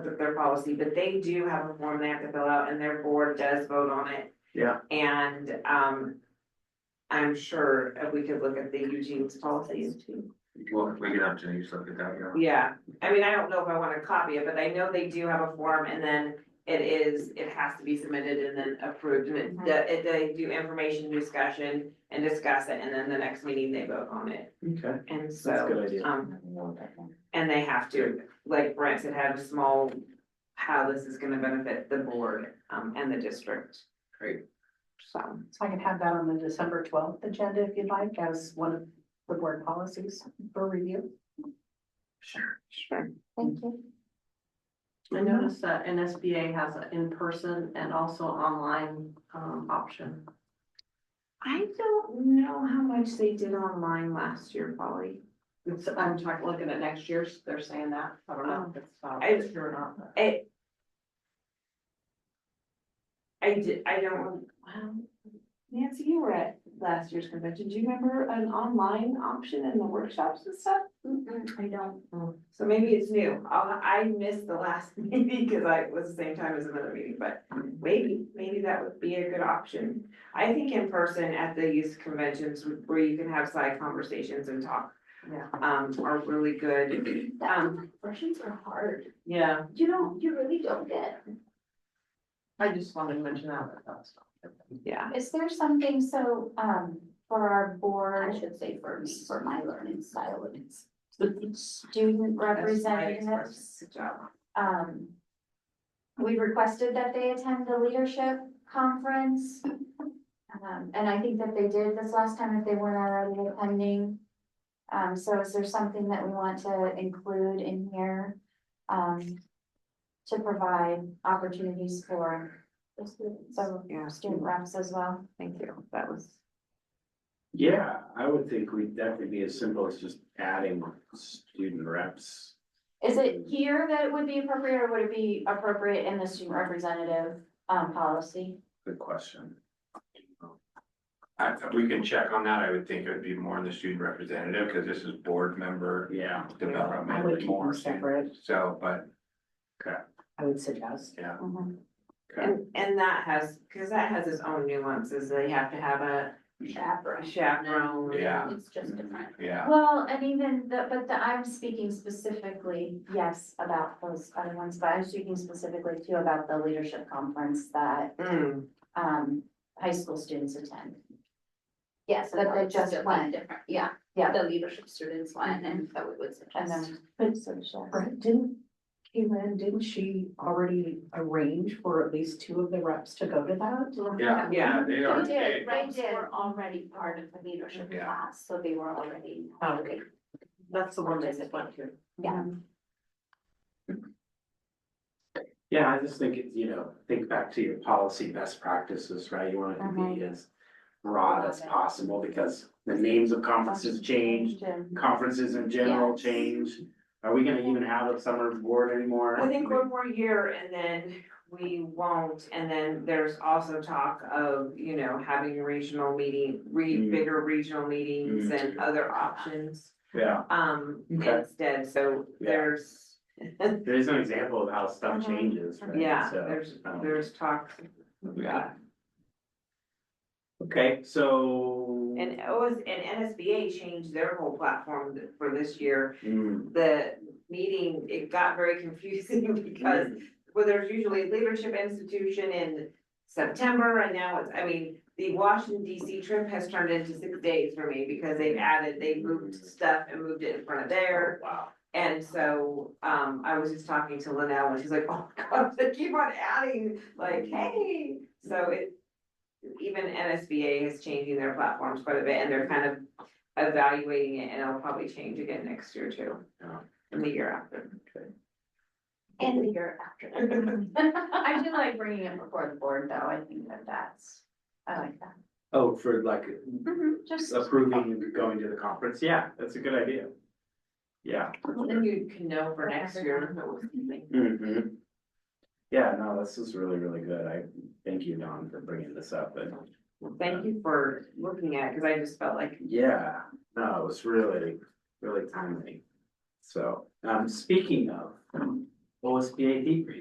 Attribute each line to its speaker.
Speaker 1: their policy, but they do have a form they have to fill out and their board does vote on it.
Speaker 2: Yeah.
Speaker 1: And, um, I'm sure if we could look at the Eugene's policies too.
Speaker 2: Well, if we get up to you, so get that, yeah.
Speaker 1: Yeah, I mean, I don't know if I wanna copy it, but I know they do have a form and then it is, it has to be submitted and then approved. And it, the- it, they do information discussion and discuss it, and then the next meeting they vote on it.
Speaker 2: Okay,
Speaker 1: And
Speaker 2: that's a
Speaker 1: so,
Speaker 2: good idea.
Speaker 1: um, and they have to, like Brent said, have a small, how this is gonna benefit the board, um, and the district.
Speaker 2: Great.
Speaker 1: So,
Speaker 3: So I can have that on the December twelfth agenda if you'd like, as one of the board policies for review.
Speaker 2: Sure.
Speaker 1: sure.
Speaker 3: Thank you.
Speaker 4: I noticed that NSBA has an in-person and also online um option.
Speaker 1: I don't know how much they did online last year, Polly.
Speaker 4: It's, I'm talking, looking at next year's, they're saying that, I don't know if it's uh,
Speaker 1: I-
Speaker 4: it's true or not. but-
Speaker 1: I. I did, I don't, wow, Nancy, you were at last year's convention, do you remember an online option in the workshops and stuff? Mm.
Speaker 3: I don't.
Speaker 1: So maybe it's new, I'll, I missed the last meeting, cause I it was the same time as another meeting, but maybe, maybe that would be a good option. I think in person at the youth conventions where you can have side conversations and talk.
Speaker 4: Yeah.
Speaker 1: Um, are really good, um,
Speaker 3: Questions are hard.
Speaker 4: Yeah,
Speaker 3: You don't, you really don't get.
Speaker 4: I just wanted to mention that, but that's.
Speaker 1: yeah,
Speaker 5: Is there something so, um, for our
Speaker 3: I
Speaker 5: board,
Speaker 3: should say for me, for my learning style, it's.
Speaker 5: student
Speaker 1: that's my expression.
Speaker 5: representatives,
Speaker 1: good job.
Speaker 5: um. We requested that they attend the leadership conference. Um, and I think that they did this last time if they weren't already attending. Um, so is there something that we want to include in here? Um, to provide opportunities for some
Speaker 1: Yeah,
Speaker 5: student reps as well?
Speaker 1: thank you, that was.
Speaker 6: Yeah, I would think we'd definitely be as simple as just adding student reps.
Speaker 5: Is it here that it would be appropriate, or would it be appropriate in the student representative, um, policy?
Speaker 6: Good question.
Speaker 7: I, we can check on that. I would think it would be more in the student representative, because this is board member
Speaker 6: Yeah,
Speaker 3: I would
Speaker 7: development
Speaker 3: keep them
Speaker 7: more.
Speaker 3: separate,
Speaker 7: So, but,
Speaker 3: I would suggest.
Speaker 7: yeah.
Speaker 6: okay.
Speaker 1: And, and that has, cause that has its own nuances, they have to have a
Speaker 3: Chaperone.
Speaker 1: chaperone.
Speaker 7: Yeah.
Speaker 3: It's just different.
Speaker 7: Yeah,
Speaker 5: Well, and even the, but the, I'm speaking specifically, yes, about those other ones, but I'm speaking specifically too about the leadership conference that,
Speaker 1: Mm,
Speaker 5: um, high school students attend.
Speaker 3: Yes,
Speaker 5: But they just went.
Speaker 3: different, yeah,
Speaker 5: Yeah.
Speaker 3: the leadership students went, and so we would
Speaker 5: And then,
Speaker 3: But
Speaker 5: so sure.
Speaker 3: Brett, didn't, Kaylin, didn't she already arrange for at least two of the reps to go to that?
Speaker 7: yeah, yeah, they are.
Speaker 5: We did,
Speaker 7: they-
Speaker 5: right, did.
Speaker 3: already part of the leadership
Speaker 7: Yeah.
Speaker 3: class, so they were already.
Speaker 4: Oh, Okay, that's the one they said went to.
Speaker 6: Yeah, I just think, it's, you know, think back to your policy best practices, right? You want it to
Speaker 1: Uh-huh.
Speaker 6: be as broad as possible because the names of conferences change, conferences in general
Speaker 5: Yes.
Speaker 6: change. Are we gonna even have a summer board anymore?
Speaker 1: I think one more year and then we won't, and then there's also talk of, you know, having regional meeting, re,
Speaker 6: Mm.
Speaker 1: bigger regional meetings
Speaker 6: Mm.
Speaker 1: and other options.
Speaker 6: Yeah,
Speaker 1: Um,
Speaker 6: Okay.
Speaker 1: instead, so
Speaker 6: Yeah.
Speaker 1: there's,
Speaker 6: there is an example of how stuff
Speaker 5: Mhm.
Speaker 6: changes, right?
Speaker 1: Uh-huh. yeah,
Speaker 6: So,
Speaker 1: there's,
Speaker 6: um,
Speaker 1: there's talk.
Speaker 6: Yeah. Okay, so.
Speaker 1: And OS, and NSBA changed their whole platform for this year
Speaker 6: Hmm.
Speaker 1: the meeting, it got very confusing because, well, there's usually leadership institution in September, and now it's, I mean, the Washington DC trip has turned into six days for me because they've added, they moved stuff and moved it in front of there.
Speaker 6: Oh, Wow.
Speaker 1: And so, um, I was just talking to Linnell, and she's like, oh, my God, they keep on adding, like, hey, so it. Even NSBA is changing their platforms quite a bit, and they're kind of evaluating it, and it'll probably change again next year too.
Speaker 6: Yeah.
Speaker 1: And the year after.
Speaker 5: And
Speaker 3: the year after.
Speaker 5: I do like bringing it before the board, though, I think that that's, I like that.
Speaker 6: Oh, for like
Speaker 5: Just,
Speaker 6: approving going to the conference, yeah, that's a good idea. Yeah.
Speaker 1: Then you can know for next year.
Speaker 6: Mhm. Yeah, no, this is really, really good, I thank you, Don, for bringing this up, and
Speaker 1: Thank you for looking at, it cause I just felt like,
Speaker 6: yeah, no, it was really, really timely. So, um, speaking of, lowest BA decrease.